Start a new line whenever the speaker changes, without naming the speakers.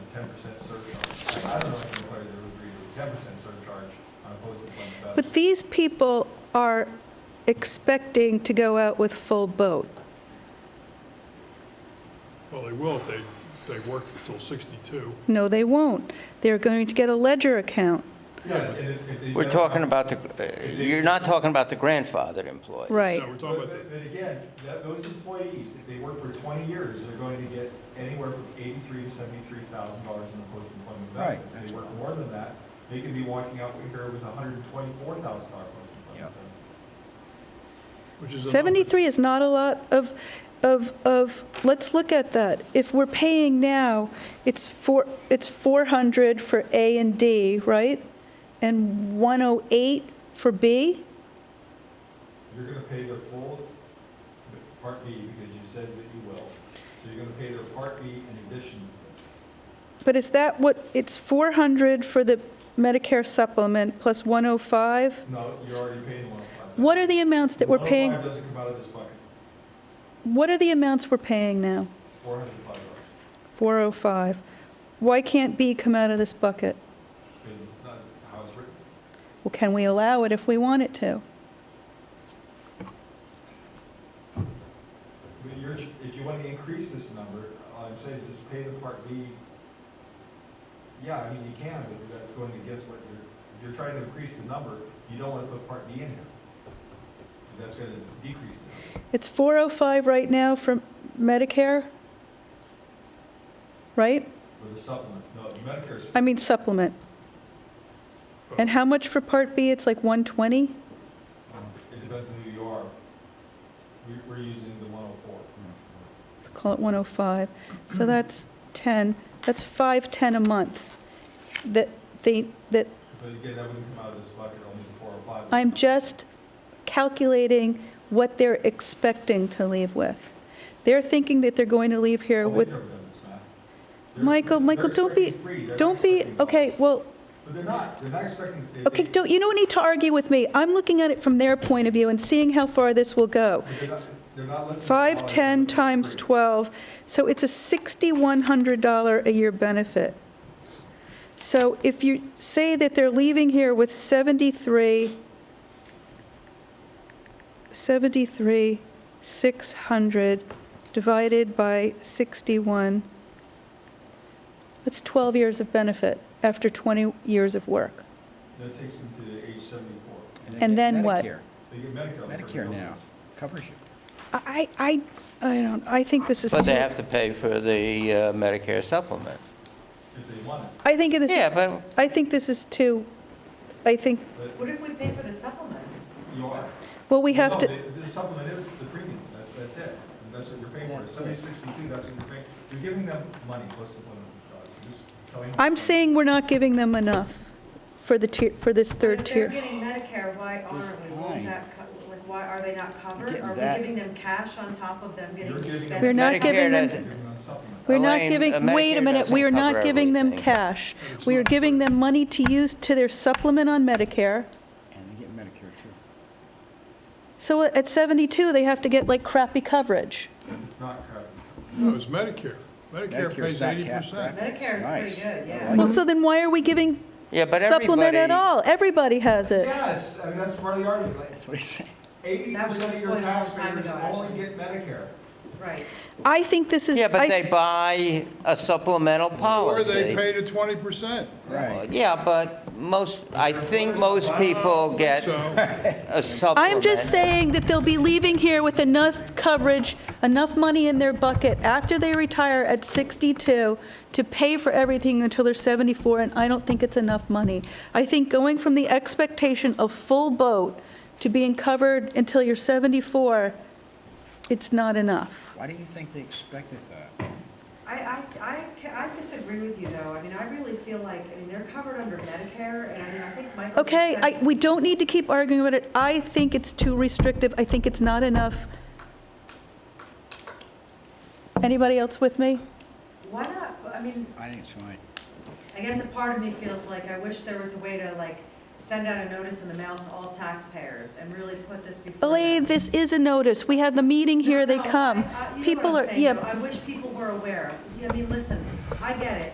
percent surcharge. I don't know if anybody would agree with ten percent surcharge on opposed to one thousand.
But these people are expecting to go out with full boat.
Well, they will if they, they work until 62.
No, they won't. They're going to get a ledger account.
Yeah, and if- if they-
We're talking about the, uh, you're not talking about the grandfathered employees.
Right.
No, we're talking
But,
about, the-
but but again, that, those employees, if they work for twenty years, they're going to get anywhere from eighty-three to seventy-three thousand dollars in the post-employment
Right,
benefit. If
that's
they work more than that, they could be walking out here with a hundred and twenty-four thousand dollar post-employment benefit.
which is. another-
73 is not a lot of, of, of, let's look at that. If we're paying now, it's four, it's 400 for A and D, right? And 108 for B?
You're gonna pay their full Part B, because you said that you will, so you're gonna pay their Part B in addition to this.
But is that what, it's 400 for the Medicare supplement plus 105?
No, you're already paying one oh five.
What are the amounts that we're paying?
One oh five doesn't come out of this bucket,
What are the amounts we're paying now?
four hundred and five dollars,
405. Why can't B come out of this bucket?
because it's not how it's written.
Well, can we allow it if we want it to?
I mean, you're, if you wanna increase this number, all I'm saying is just pay the Part B. Yeah, I mean, you can, but that's going against what you're, if you're trying to increase the number, you don't wanna put Part B in here. Because that's gonna decrease the number.
It's 405 right now for Medicare? Right?
With the supplement, no, Medicare's,
I mean supplement. And how much for Part B? It's like 120?
um, it depends on who you are. We, we're using the one oh four.
Call it 105. So that's 10, that's 510 a month that they, that
But again, that wouldn't come out of this bucket, only the four oh five.
I'm just calculating what they're expecting to leave with. They're thinking that they're going to leave
Oh,
here with, Michael, Michael, don't be, don't be, okay, well,
But they're not, they're not expecting. they-
okay,
they-
don't, you don't need to argue with me. I'm looking at it from their point of view and seeing how far this will go.
but They're not, they're not looking. at all
Five,
of it,
10
they're
times
free.
12, so it's a $6,100 a year benefit. So if you say that they're leaving here with 73, 73, 600 divided by 61, that's 12 years of benefit after 20 years of work.
That takes them to age seventy-four.
they
And
get
then what?
Medicare.
They get Medicare. for
Medicare
illness.
now covers you.
I, I, I don't, I think this is.
But they
too-
have to pay for the uh, Medicare supplement.
If they want it,
I think this is.
Yeah, but,
I think this is too, I think,
but
What if we pay for the supplement?
you are.
well, we
Well,
have
no,
to,
The the supplement is the premium, that's, that's it. And That's what you're paying for, seventy sixty-two, that's what you're paying. You're giving them money, plus the one, uh, you're just telling them.
I'm saying we're not giving them enough for the tier, for this third
If
tier.
they're getting Medicare, why aren't we,
fine.
Won't that co- like, why are they not covered?
getting
Are we
that.
giving them cash on top of them getting
You're giving them-
benefits?
We're not
Medicare
giving them-
You're
doesn't-
giving them supplement.
We're not
Elaine, uh,
giving, wait a
Medicare
minute, we are
doesn't
not
cover
giving them
everything.
cash. We are giving them money to use to their supplement on Medicare.
And they get Medicare too.
So at 72, they have to get like crappy coverage.
It's not crappy.
No, it's Medicare. Medicare
Medicare's
pays
not capped,
80%.
right?
Medicare is
Nice.
pretty good,
I
yeah.
like
Well, so then why are we giving
yeah, but everybody...
supplement at all? Everybody has it.
Yes, I mean, that's part of the argument, like,
That's what he's saying.
eighty
That was
percent of
just
your
one time
taxpayers
ago,
only
actually.
get Medicare.
Right.
I think this is.
Yeah,
I-
but they buy a supplemental
Or
policy.
they pay the 20%.
Right.
Yeah, but most, I think most people get
So,
a supplement.
I'm just saying that they'll be leaving here with enough coverage, enough money in their bucket after they retire at 62 to pay for everything until they're 74, and I don't think it's enough money. I think going from the expectation of full boat to being covered until you're 74, it's not enough.
Why do you think they expected that?
I, I, I, ca- I disagree with you though. I mean, I really feel like, I mean, they're covered under Medicare and I mean, I think Michael. just
Okay,
said-
I, we don't need to keep arguing about it. I think it's too restrictive. I think it's not enough. Anybody else with me?
Why not, I mean,
I think it's fine.
I guess a part of me feels like I wish there was a way to like send out a notice in the mail to all taxpayers and really put this before.
Elaine,
them.
this is a notice. We have the meeting here, they
No, no,
come.
I- I- you know what
People
I'm
are,
saying,
yeah,
though. I wish people were aware. I mean, listen, I get it.